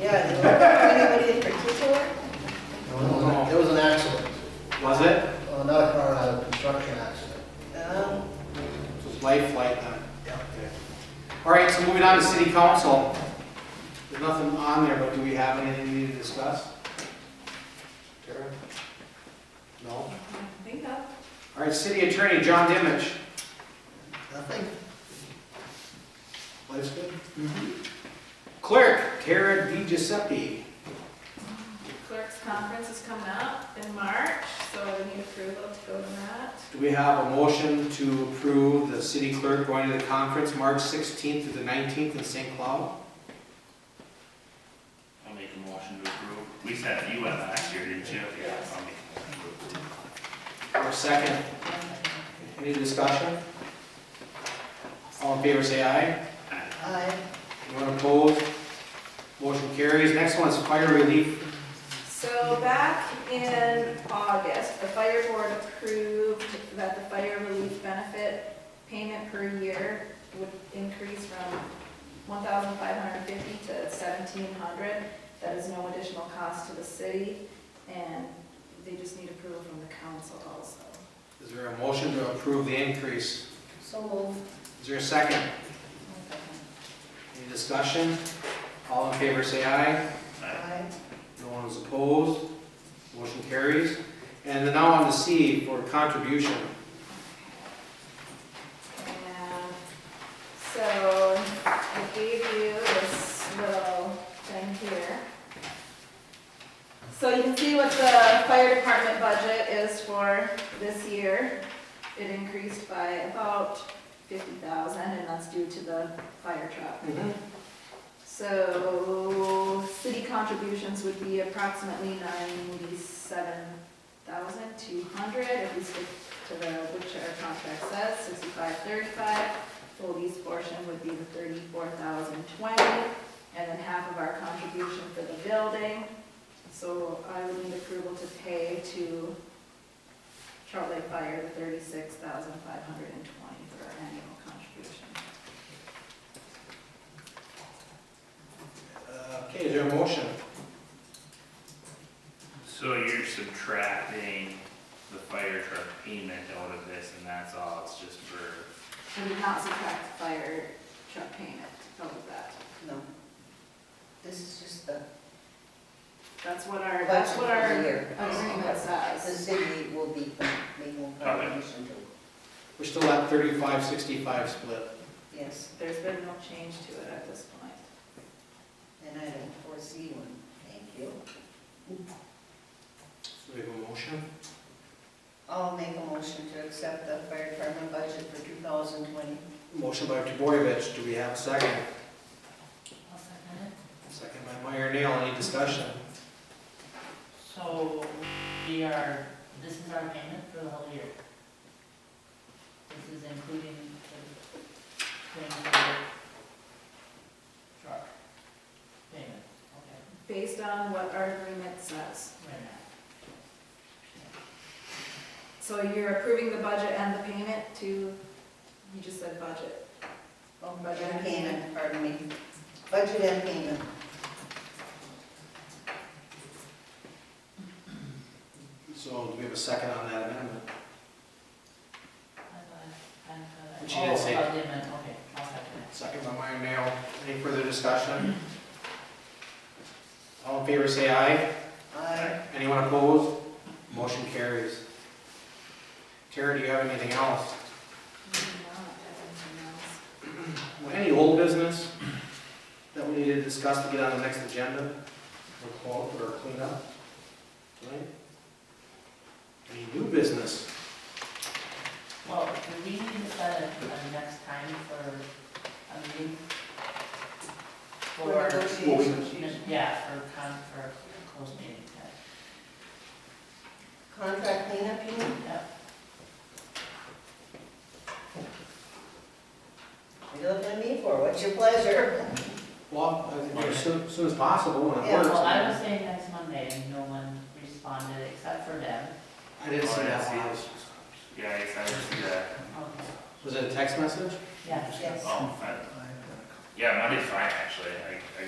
Yeah, you know, anybody in particular? No. There was an accident, Was it? Uh, not a car, a construction accident. Um, It was life flight then? Yeah. Okay. All right, so moving on to city council. There's nothing on there, but do we have anything we need to discuss? Tara? No? All think of. right, city attorney, John Dimmich. Nothing. Life's good? Mm-hmm. Clerk, Tara Di Giuseppe. Clerk's conference is coming up in March, so we need approval to go to that. Do we have a motion to approve the city clerk going to the conference March 16th to the 19th in St. Cloud? I'll make a motion to approve. We said you went last year, didn't you? Yes. Or second? Any discussion? All in favor, say aye. I, Anyone opposed? Motion carries. Next one is fire relief. So back in August, the fire board approved that the fire relief benefit payment per year would increase from one thousand five hundred fifty to seventeen hundred. That is no additional cost to the city, and they just need approval from the council also. Is there a motion to approve the increase? so moved. Is there a second? Any discussion? All in favor, say aye. I, No one is opposed. Motion carries. And then now on to C for contribution. And so I gave you this little thing here. So you can see what the fire department budget is for this year. It increased by about fifty thousand, and that's due to the fire truck. Mm-hmm. So city contributions would be approximately ninety-seven thousand two hundred, if we stick to the, which our contract says, sixty-five thirty-five. Foley's portion would be the thirty-four thousand twenty, and then half of our contribution for the building. So I would need approval to pay to Trout Lake Fire the thirty-six thousand five hundred and twenty for our annual contribution. Uh, Okay, is there a motion? So you're subtracting the fire truck payment out of this and that's all, it's just for, We did not subtract the fire truck payment out of that. no. This is just the. That's what our, that's what our agreement The says. city will be making a contribution to, We're still at 35-65 split. yes, There's been no change to it at this point. and I don't foresee one, thank you. So we have a motion. I'll make a motion to accept the fire department budget for 2020. Motion by Tavoyevich. Do we have a second? Second by Meyer Nail. Any discussion? So we are, this is our payment for the whole year? This is including the thing for the truck payment, okay, Based on what our agreement says. right now. So you're approving the budget and the payment to, you just said budget. Oh, budget and payment, pardon me. Budget and payment. So do we have a second on that amendment? I thought- I thought- But she didn't say- Oh, about the amendment, okay, I'll second that. Second by Meyer Nail. Any further discussion? All in favor, say aye. I, Anyone opposed? Motion carries. Tara, do you have anything else? Mm, Any old business that we need to discuss to get on the next agenda or call or clean up? Right? Any new business? Well, do we need to set a, a next time for a meeting? for For, negotiations. yeah, for con, for a closed meeting, yeah. Contract cleanup, you mean? Yep. What are you looking at me for? What's your pleasure? Well, I think as soon, soon as possible when it Yeah, works. well, I was saying next Monday, and no one responded except for Deb. I didn't see that. yeah, I guess I just see that. Was it a text message? Yeah. Yes. Oh, fine. Yeah, Monday's fine, actually, I, I